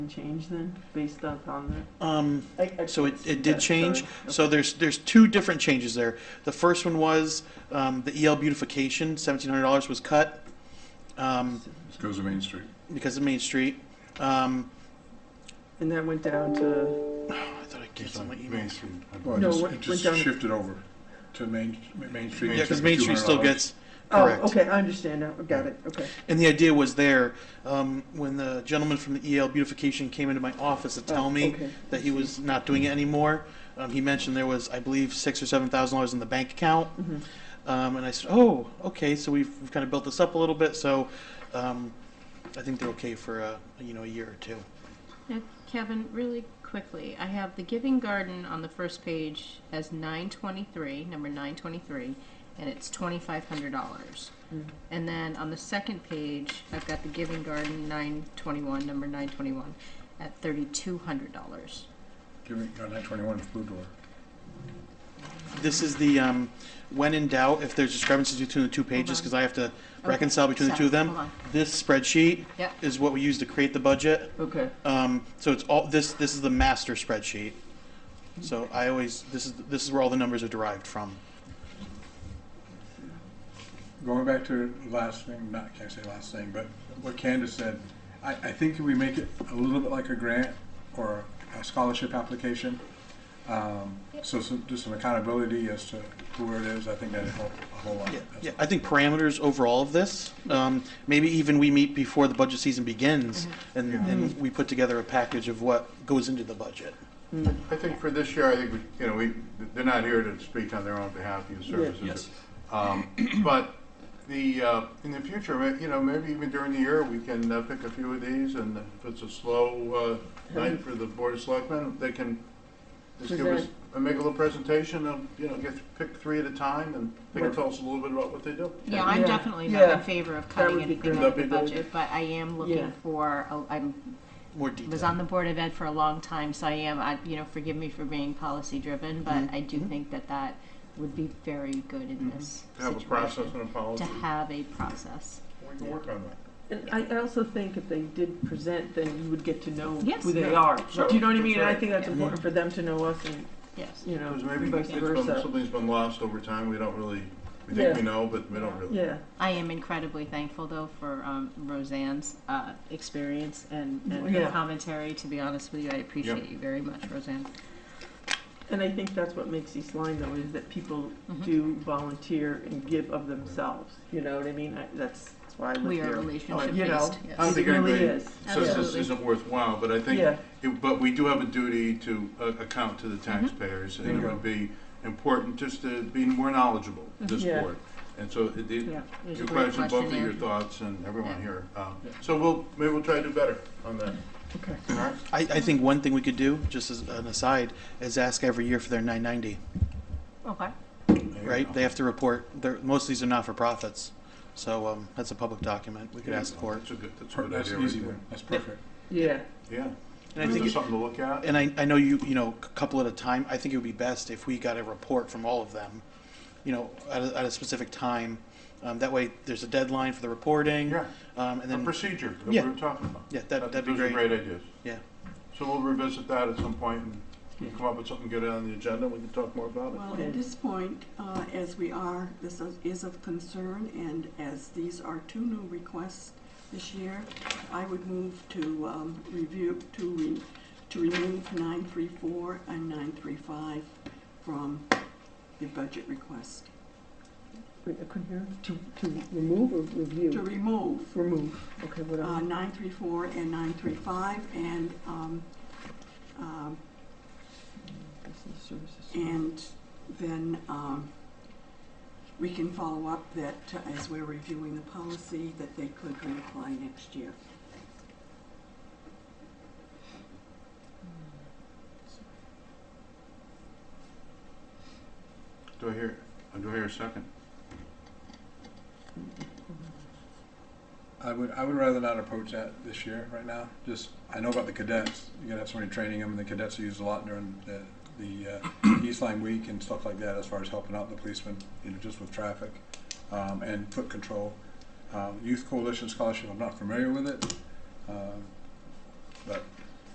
change then, based up on Um, the? I- I- so it, it did Yeah, change. sorry. So there's, there's two different changes there. The first one was, um, the EL beautification, seventeen hundred dollars was cut, um, Goes to Main Street. because of Main Street. Um, And that went down to, oh, I thought I canceled my Main email. Street. No, Well, what- it went just, it down- just shifted over to Main, Main Street. Yeah, because Main Street still $200. gets, oh, correct. okay, I understand now, got it, okay. And the idea was there, um, when the gentleman from the EL beautification came into my office to tell Oh, me okay. that he was not doing it anymore, um, he mentioned there was, I believe, six or seven thousand dollars in the bank account. Mhm. Um, and I said, oh, okay, so we've, we've kind of built this up a little bit, so, um, I think they're okay for a, you know, a year or two. Now, Kevin, really quickly, I have the Giving Garden on the first page as nine twenty-three, number nine twenty-three, and it's twenty-five hundred dollars. Hmm. And then on the second page, I've got the Giving Garden nine twenty-one, number nine twenty-one, at thirty-two hundred dollars. Giving, got nine twenty-one is Blue Door. This is the, um, when in doubt, if there's discrepancies between the two pages, on. because I have to reconcile between the two of Hold them. on. This spreadsheet Yep. is what we use to create the budget. Okay, Um, so it's all this. This is the master spreadsheet. So I always this is this is where all the numbers are derived from. Going back to the last thing, not, can't say last thing, but what Candace said, I, I think if we make it a little bit like a grant or a scholarship application, um, so some, just some accountability as to who it is, I think that'd help a whole lot. Yeah, That's yeah. I think parameters overall of this. Um, maybe even we meet before the budget season begins, and, and we put together a package of what goes into the budget. I think for this year, I think, we you know, we, they're not here to speak on their own behalf, your services. Yes. Um, But the, uh, in the future, ma- you know, maybe even during the year, we can uh, pick a few of these, and if it's a slow uh, night for the Board of Selectmen, they can just give us, Present. uh, make a little presentation, of you know, get, pick three at a time, and they can Right. tell us a little bit about what they do. Yeah, I'm Yeah. definitely not Yeah. in favor of cutting would be anything great. out of the That'd be really budget, but I am Yeah. looking for, a- I'm More was detail. on the board of ed for a long time, so I am, I, you know, forgive me for being policy driven, Mm-hmm. but I do think that that would be very good in this To have a process situation. and a policy. To have a process. We can work on that. and I, I also think if they did present, then you would get to know Yes. who they Yeah, are. sure, Do you know what I that's mean? And I right. think that's Yeah. important for them to know us and, Yes. you know, Because maybe vice it's been, versa. something's been lost over time, we don't really, we Yeah. think we know, but we don't really. Yeah, I am incredibly thankful though for um, Roseanne's uh, experience and, Mm-hmm. and Yeah. her commentary, to be honest with you, I appreciate you very much, Roseanne. and I think that's what makes East Line though, is that people Mm-hmm. do volunteer and give of themselves, you know what I mean? I- That's, that's why I live We are here. relationship you know, based, I don't yes. It think really anybody is. says this Absolutely. isn't worthwhile, but I think, Yeah. Mm-hmm. it- but we do have a duty to uh, account to the taxpayers, and it Bingo. would be important just to be more knowledgeable, this Mm-hmm. Yeah. board. And so, it- it- Yeah, there's a your great question, both of questionnaire. your thoughts, and everyone Yeah. here. um, Yeah. So we'll, maybe we'll try to do better on that, Okay. all right? I, I think one thing we could do, just as an aside, is ask every year for their 990. Okay, There you Right? go. They have to report. They're, most of these are not for profits, so um, that's a public document. We could ask for it. That's a good, that's a per- good That's idea an right easy there. one, that's perfect. Yeah, Yeah, And I Is think there it- something to look at? And I, I know you, you know, a couple at a time, I think it would be best if we got a report from all of them, you know, at a, at a specific time. Um, that way, there's a deadline for the reporting. Yeah. Um, and A then, procedure that we Yeah. were talking about. yeah, that, that'd be Those are great. great ideas. Yeah. So we'll revisit that at some point, and we'll come up with something good on the agenda, we can talk more about it. Well, at this point, uh, as we are, this is- is of concern, and as these are two new requests this year, I would move to um, review, to re- to remove 934 and 935 from the budget request. Wait, I couldn't hear, to, to remove or review? To remove Remove, okay, what uh, else? 934 and 935 and, um, um, Business services. And then um, we can follow up that, uh, as we're reviewing the policy, that they could reapply next year. Do I hear, do I hear a second? I would, I would rather not approach that this year, right now. Just, I know about the cadets. You're gonna have somebody training them, and the cadets are used a lot during the, the uh, East Line Week and stuff like that, as far as helping out the policemen, you know, just with traffic um, and foot control. Um, Youth Coalition Scholarship, I'm not familiar with it, um, uh, but